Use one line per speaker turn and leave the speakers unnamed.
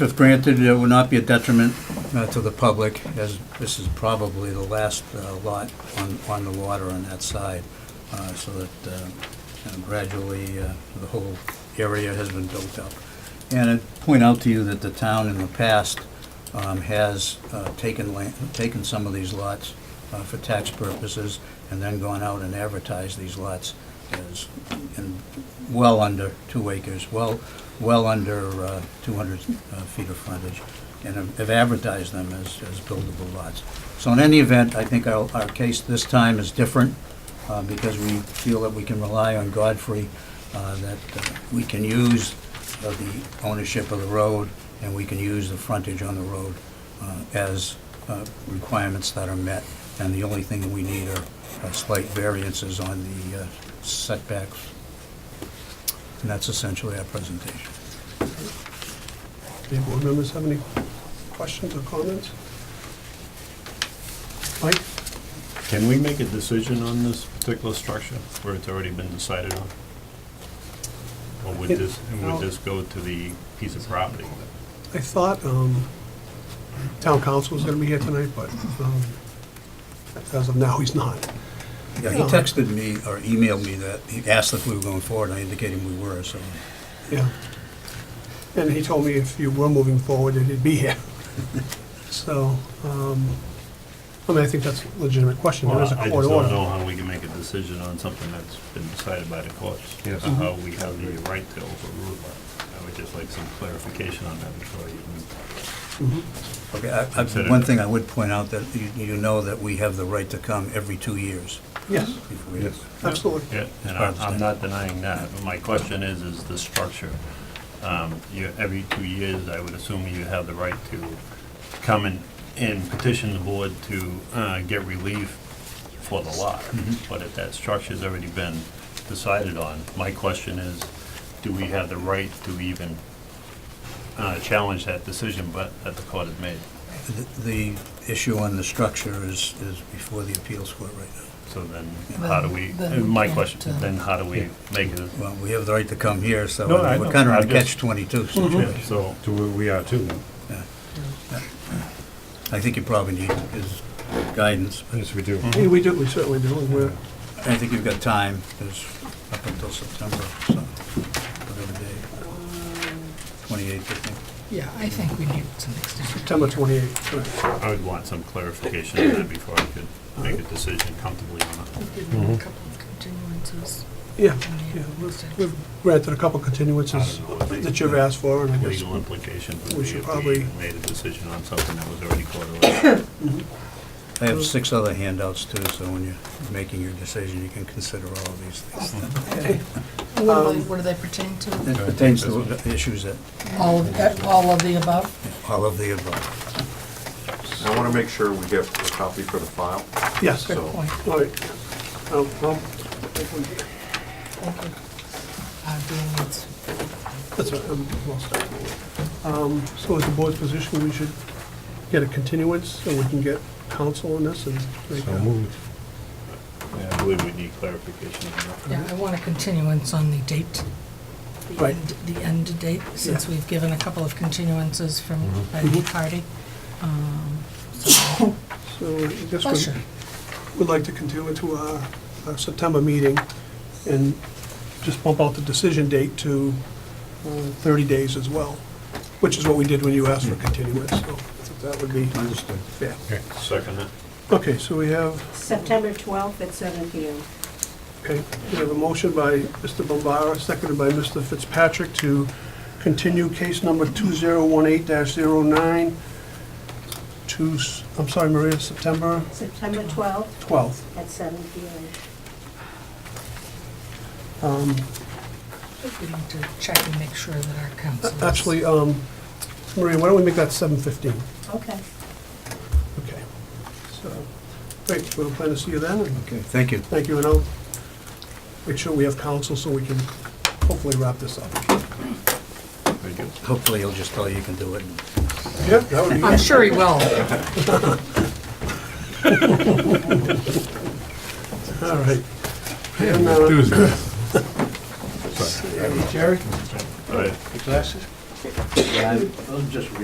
If granted, it would not be a detriment uh, to the public, as this is probably the last uh, lot on, on the water on that side, uh, so that uh, uh, gradually uh, the whole area has been built up. And I point out to you that the town in the past um, has uh, taken land, taken some of these lots uh, for tax purposes, and then gone out and advertised these lots as, in well under two acres, well, well under uh, 200 uh, feet of frontage, and have have advertised them as, as buildable lots. So in any event, I think our, our case this time is different, uh, because we feel that we can rely on Godfrey, uh, that uh, we can use of the ownership of the road, and we can use the frontage on the road uh, as uh, requirements that are met. And the only thing that we need are uh, slight variances on the uh, setbacks. And that's essentially our presentation.
Any board members have any questions or comments? Mike?
Can we make a decision on this particular structure where it's already been decided on? Or would this, and would this go to the piece of property?
I thought um, town council was going to be here tonight, but um, as of now, he's not.
Yeah, he texted me or emailed me that, he asked if we were going forward, and I indicated we were, so.
Yeah. And he told me if you were moving forward, that he'd be here. So, um, I mean, I think that's a legitimate question. There is a
Well, I
court
just don't know
order.
how we can make a decision on something that's been decided by the courts.
Yes.
And How we have the right to overrule that. I would just like some clarification on that before you even
Mhm.
Okay, I- I-
Consider
one
it.
thing I would point out, that you- you know that we have the right to come every two years.
Yes,
if we-
Yes.
absolutely.
Yeah, and
I
I'm,
understand.
I'm not denying that, but my question is, is the structure. Um, you, every two years, I would assume you have the right to come and, and petition the board to, uh, get relief for the lot.
Mm-hmm.
But if that structure's already been decided on, my question is, do we have the right to even, uh, challenge that decision, but that the court has made?
The- The issue on the structure is, is before the appeals court right now.
So then, how do we,
Well, then
my
we
question,
can't, uh,
then how do we make it?
Well, we have the right to come here, so
No, I
we're
know.
kind of in a
I'm just-
catch-22
Mm-hmm.
situation.
So,
To where Mm-hmm. we are too now.
I think you probably need his guidance.
Yes, we do.
Hey, we do, we certainly do, and we're,
I think you've got time, there's up until September, so, whatever day, 28th, I think.
Yeah, I think we need some extension.
September 28th, correct.
I would want some clarification on that before I could make a decision comfortably on it.
A couple of continuances.
Yeah,
and
Mm-hmm. yeah, we've,
extensions.
we've granted a couple
I don't know what they-
continuances that you've asked for, and I guess,
Legal implications
We
would be
should
if we
probably-
made a decision on something that was already quarterly.
I have six other handouts too, so when you're making your decision, you can consider all of these things.
What do
um,
they, what do they pertain to?
It pertains to the issues that,
All, of- eh, all of the above?
all of the above.
I want to make sure we get a copy for the file.
yes.
Good
All
So-
point,
right. Um, well,
thank you. Uh, doing it.
That's all right, I'm well set. Um, So is the board's position, we should get a continuance, so we can get counsel on this and make
So
a...
moved.
I believe we need clarification on
Mm-hmm.
Yeah, I want a continuance on the date. the
Right.
end- The end date, since
Yeah. Mm-hmm.
we've given a couple of continuances from, by the party. Um, so-
So I guess
Pleasure.
we'd- we'd like to continue it to our our September meeting and just bump out the decision date to uh, 30 days as well, which is what we did when you asked for continuance, so I think that would be
Understood.
fair.
that. Second it.
Okay, so we have
September 12th at seven PM.
Okay, we have a motion by Mr. Bombara, seconded by Mr. Fitzpatrick to continue case number 2018-09 to, s- I'm sorry, Maria, September
September 12th
12th.
at seven PM.
Um,
We need to check and make sure that our council is-
Actually, um, Maria, why don't we make that 7:15?
Okay.
Okay. So, great, we'll plan to see you then, and
Okay, thank you.
thank you, and I'll make sure we have counsel so we can hopefully wrap this up.
Very good.
Hopefully, he'll just tell you you can do it.
Yeah, that would be...
I'm sure he will.
All right. And, uh,
Tuesday.
Jerry?
All right.
Your glasses?
Yeah, I- I'll just read